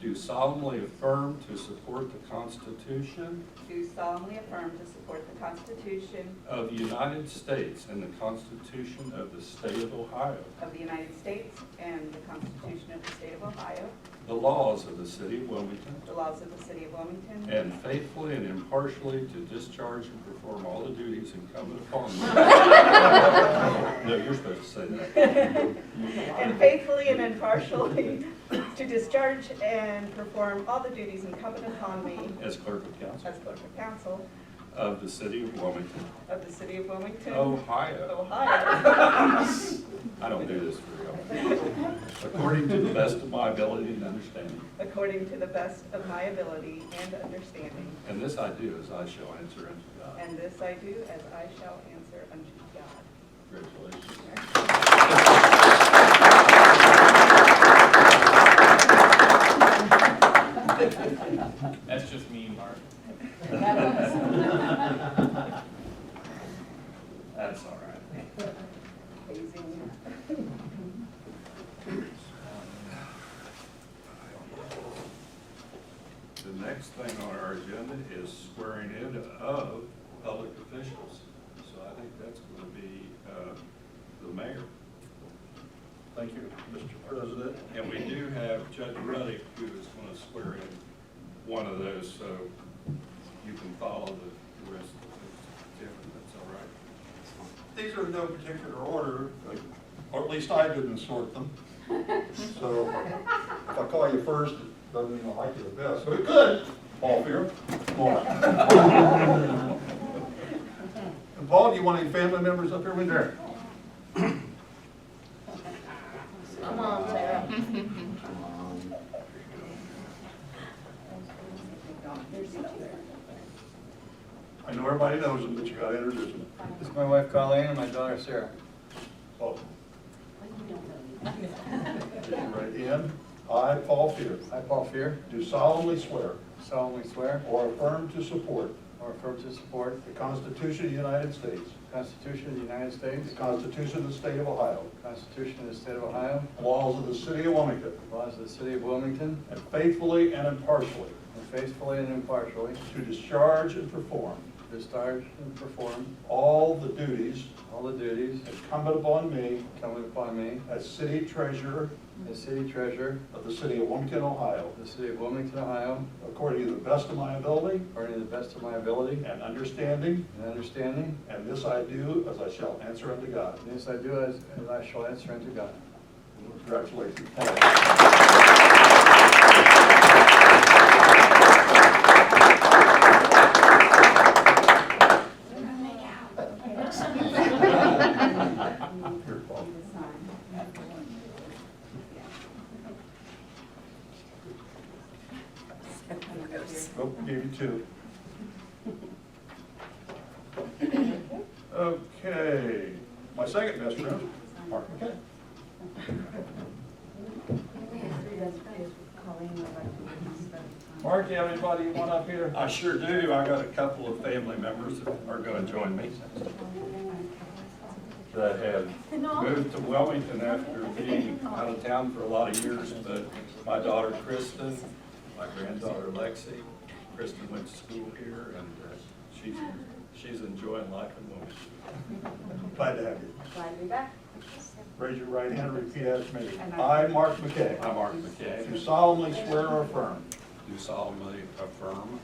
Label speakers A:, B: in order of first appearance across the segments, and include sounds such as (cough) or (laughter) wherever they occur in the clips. A: do solemnly affirm to support the Constitution
B: do solemnly affirm to support the Constitution
A: of the United States and the Constitution of the State of Ohio,
B: of the United States and the Constitution of the State of Ohio,
A: the laws of the City of Wilmington,
B: the laws of the City of Wilmington,
A: and faithfully and impartially to discharge and perform all the duties incumbent upon me. No, you're supposed to say that.
B: and faithfully and impartially to discharge and perform all the duties incumbent upon me
A: As clerk of council
B: as clerk of council
A: of the City of Wilmington,
B: of the City of
A: Oh.
B: Wilmington,
A: Ohio.
B: Ohio,
A: I don't do this for real. According to the best of my ability and understanding.
B: according to the best of my ability and understanding.
A: And this I do as I shall answer unto God.
B: And this I do as I shall answer unto God.
A: Congratulations.
C: That's just me, Mark.
A: That's all right.
B: Amazing.
A: The next thing on our agenda is swearing in of public officials. So I think that's going to be uh, the mayor.
D: Thank you, Mr. President.
A: And we do have Judge Ruddick who is going to swear in one of those, so you can follow the- the rest of the Jim, if that's all right.
D: These are in no particular order, or at least I didn't sort
E: (laughs)
D: them. So if I call you first, it doesn't mean I like you the best, but it could. Paul Fear.
E: (laughs)
D: Paul. And Paul, do you want any family members up here with you? I know everybody knows them, but you gotta introduce them.
E: This is my wife Colleen and my daughter Sarah.
D: Paul.
E: (laughs)
D: Raise your right hand. I, Paul Fear,
E: I, Paul Fear,
D: do solemnly swear
E: solemnly swear
D: or affirm to support
E: or affirm to support
D: the Constitution of the United States,
E: the Constitution of the United States,
D: the Constitution of the State of Ohio,
E: the Constitution of the State of Ohio,
D: the laws of the City of Wilmington,
E: the laws of the City of Wilmington,
D: and faithfully and impartially
E: and faithfully and impartially
D: to discharge and perform
E: discharge and perform
D: all the duties
E: all the duties
D: incumbent upon me
E: incumbent upon me
D: as City Treasurer
E: as City Treasurer
D: of the City of Wilmington, Ohio,
E: of the City of Wilmington, Ohio,
D: according to the best of my ability
E: according to the best of my ability
D: and understanding,
E: and understanding.
D: and this I do as I shall answer unto God.
E: And This I do as as I shall answer unto God.
D: Congratulations. Here, Paul. Nope, Oh, gave you two. Okay, my second best friend, Mark McKay. Mark, you have anybody you want up here?
A: I sure do. I got a couple of family members that are going to join me that have moved to Wilmington after being out of town for a lot of years. But my daughter Kristen, my granddaughter Lexi, Kristen went to school here and uh, she's, she's enjoying life in Wilmington.
D: Glad to have you.
F: Glad to be back.
D: Raise your right hand and repeat after me.
F: And I-
D: I, Mark McKay.
A: I, Mark
D: Do
A: McKay,
D: solemnly swear or affirm
A: do solemnly affirm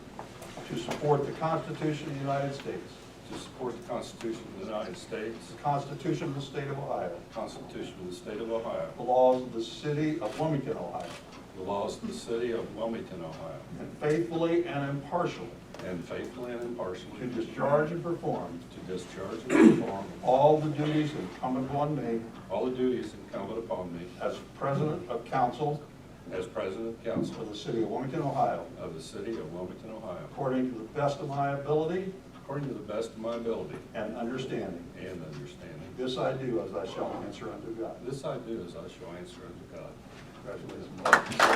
D: to support the Constitution of the United States,
A: to support the Constitution of the United States,
D: the Constitution of the State of Ohio,
A: the Constitution of the State of Ohio,
D: the laws of the City of Wilmington, Ohio,
A: the laws of the City of Wilmington, Ohio,
D: and faithfully and impartially
A: And faithfully and impartially.
D: to discharge and perform
A: To discharge and perform
D: all the duties incumbent upon me
A: all the duties incumbent upon me
D: as President of Council
A: as President of Council
D: for the City of Wilmington, Ohio,
A: of the City of Wilmington, Ohio,
D: according to the best of my ability
A: according to the best of my ability
D: and understanding.
A: and understanding.
D: This I do as I shall answer unto God.
A: This I do as I shall answer unto God.
D: Congratulations.